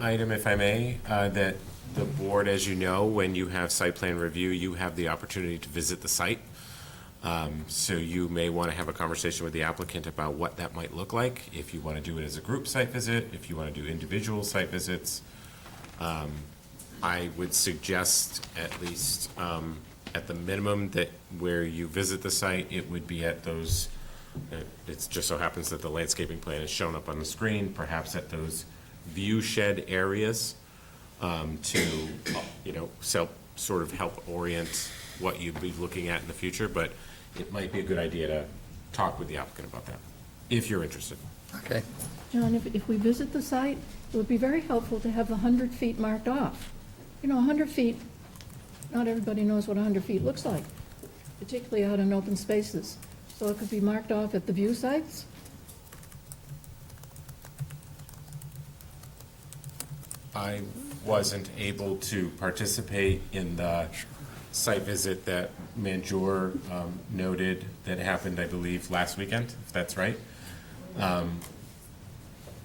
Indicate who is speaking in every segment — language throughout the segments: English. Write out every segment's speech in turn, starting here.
Speaker 1: Item, if I may, uh, that the board, as you know, when you have site plan review, you have the opportunity to visit the site. Um, So you may want to have a conversation with the applicant about what that might look like, if you want to do it as a group site visit, if you want to do individual site visits. Um, I would suggest at least, um, at the minimum, that where you visit the site, it would be at those, it just so happens that the landscaping plan is shown up on the screen, perhaps at those view shed areas um, to, you know, so, sort of help orient what you'd be looking at in the future, but it might be a good idea to talk with the applicant about that, if you're interested.
Speaker 2: Okay,
Speaker 3: John, if, if we visit the site, it would be very helpful to have the 100 feet marked off. You know, 100 feet, not everybody knows what 100 feet looks like, particularly out in open spaces. So it could be marked off at the view sites.
Speaker 1: I wasn't able to participate in the site visit that Manjor um, noted that happened, I believe, last weekend, if that's right. Um,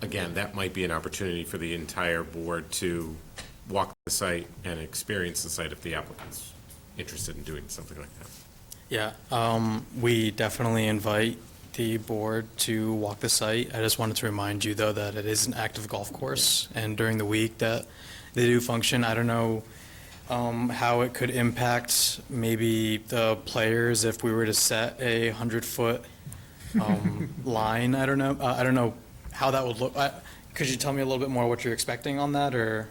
Speaker 1: Again, that might be an opportunity for the entire board to walk the site and experience the site if the applicant's interested in doing something like that.
Speaker 4: Yeah, um, we definitely invite the board to walk the site. I just wanted to remind you, though, that it is an active golf course, and during the week that they do function, I don't know um, how it could impact maybe the players if we were to set a 100-foot um, line. I don't know, Uh, I don't know how that would look. I- Could you tell me a little bit more what you're expecting on that, or?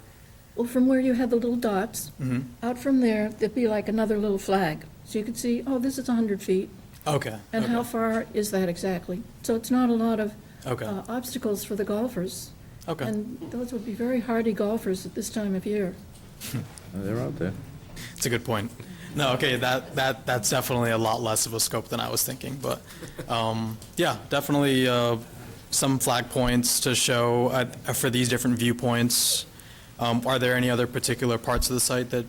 Speaker 3: Well, from where you had the little dots,
Speaker 4: Mm-hmm.
Speaker 3: out from there, there'd be like another little flag. So you could see, oh, this is 100 feet,
Speaker 4: Okay.
Speaker 3: and how far is that exactly? So it's not a lot of
Speaker 4: Okay.
Speaker 3: uh, obstacles for the golfers.
Speaker 4: Okay.
Speaker 3: And those would be very hardy golfers at this time of year.
Speaker 2: they're out there.
Speaker 4: It's a good point. No, okay, that, that, that's definitely a lot less of a scope than I was thinking, but, um, yeah, definitely, uh, some flag points to show, uh, for these different viewpoints. Um, are there any other particular parts of the site that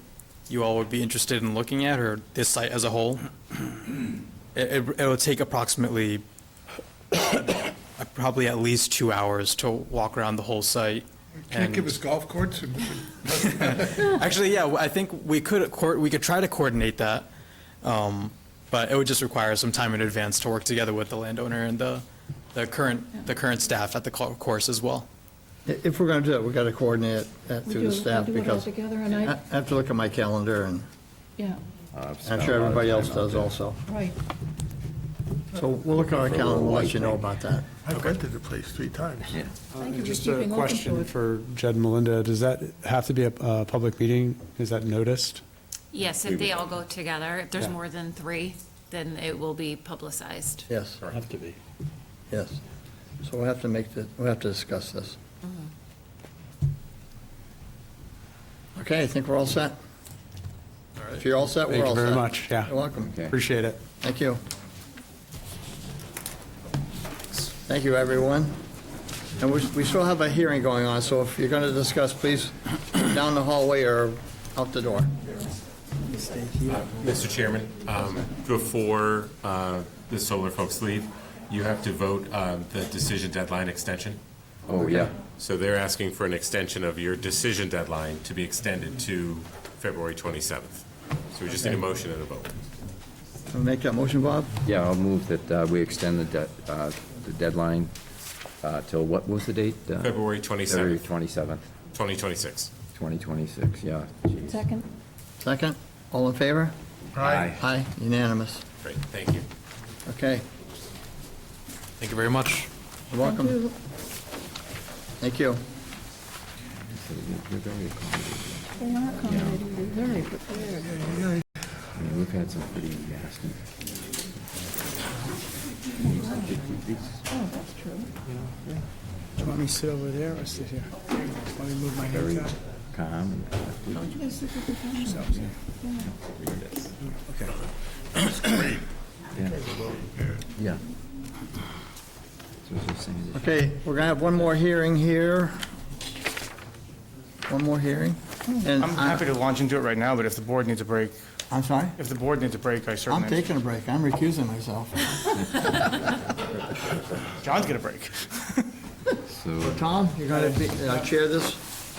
Speaker 4: you all would be interested in looking at, or this site as a whole? It, it, it would take approximately, uh, probably at least two hours to walk around the whole site.
Speaker 5: Can't
Speaker 4: and-
Speaker 5: give us golf courts? and-
Speaker 4: Actually, yeah, I think we could, coor- we could try to coordinate that, um, but it would just require some time in advance to work together with the landowner and the, the current, the current staff at the co- course as well.
Speaker 2: I- If we're going to do it, we got to coordinate that
Speaker 3: We
Speaker 2: through the
Speaker 3: do- we
Speaker 2: staff
Speaker 3: do it all
Speaker 2: because
Speaker 3: together, and
Speaker 2: I
Speaker 3: I-
Speaker 2: I have to look at my calendar and
Speaker 3: Yeah,
Speaker 2: I'm sure everybody else does also.
Speaker 3: right.
Speaker 2: So we'll look at our calendar, we'll let you know about that.
Speaker 5: I've rented the place three times.
Speaker 3: Thank you for
Speaker 6: Just
Speaker 3: keeping
Speaker 6: a
Speaker 3: open
Speaker 6: question
Speaker 3: it.
Speaker 6: for Jed and Melinda, does that have to be a, a public meeting? Is that noticed?
Speaker 7: Yes, if they all go together, if there's
Speaker 6: Yeah.
Speaker 7: more than three, then it will be publicized.
Speaker 2: Yes,
Speaker 6: Have to be.
Speaker 2: yes. So we'll have to make, the- we'll have to discuss this.
Speaker 3: Mm-hmm.
Speaker 2: Okay, I think we're all set. If you're all set,
Speaker 6: Thank
Speaker 2: we're
Speaker 6: you
Speaker 2: all set.
Speaker 6: very much, yeah.
Speaker 2: You're welcome.
Speaker 6: Appreciate it.
Speaker 2: Thank you. Thank you, everyone. And we we still have a hearing going on, so if you're going to discuss, please down the hallway or out the door.
Speaker 1: Mr. Chairman, um, before uh, the solar folks leave, you have to vote uh, the decision deadline extension.
Speaker 8: Oh, yeah.
Speaker 1: So they're asking for an extension of your decision deadline to be extended to February 27th. So we just need a motion and a vote.
Speaker 2: Wanna Make that motion, Bob?
Speaker 8: Yeah, I'll move that uh, we extend the de- uh, the deadline uh, till, what was the date? Uh,
Speaker 1: February
Speaker 8: February
Speaker 1: 27th,
Speaker 8: 27th,
Speaker 1: 2026.
Speaker 8: 2026, yeah. Jeez.
Speaker 3: Second?
Speaker 2: Second? All in favor?
Speaker 8: Aye.
Speaker 2: Aye, unanimous.
Speaker 1: Great, thank you.
Speaker 2: Okay,
Speaker 4: Thank you very much.
Speaker 2: you're welcome.
Speaker 3: Two.
Speaker 2: Thank you.
Speaker 8: We're
Speaker 3: They
Speaker 8: very accommodating.
Speaker 3: are accommodating, they're very prepared.
Speaker 8: I mean, we've had some pretty nasty.
Speaker 3: Oh, that's true.
Speaker 9: Do you want me to sit over there or sit here? Let me move my hands out.
Speaker 8: Calm.
Speaker 3: Yes, this is the time.
Speaker 8: Yeah. Yeah. So it's just saying that-
Speaker 2: Okay, we're going to have one more hearing here. One more hearing. And
Speaker 10: I'm
Speaker 2: I-
Speaker 10: happy to launch into it right now, but if the board needs a break,
Speaker 2: I'm sorry?
Speaker 10: if the board needs a break, I
Speaker 2: I'm
Speaker 10: certainly,
Speaker 2: taking a break. I'm recusing myself.
Speaker 10: John's gonna break.
Speaker 8: So
Speaker 2: Tom, you're going to be, uh, chair this?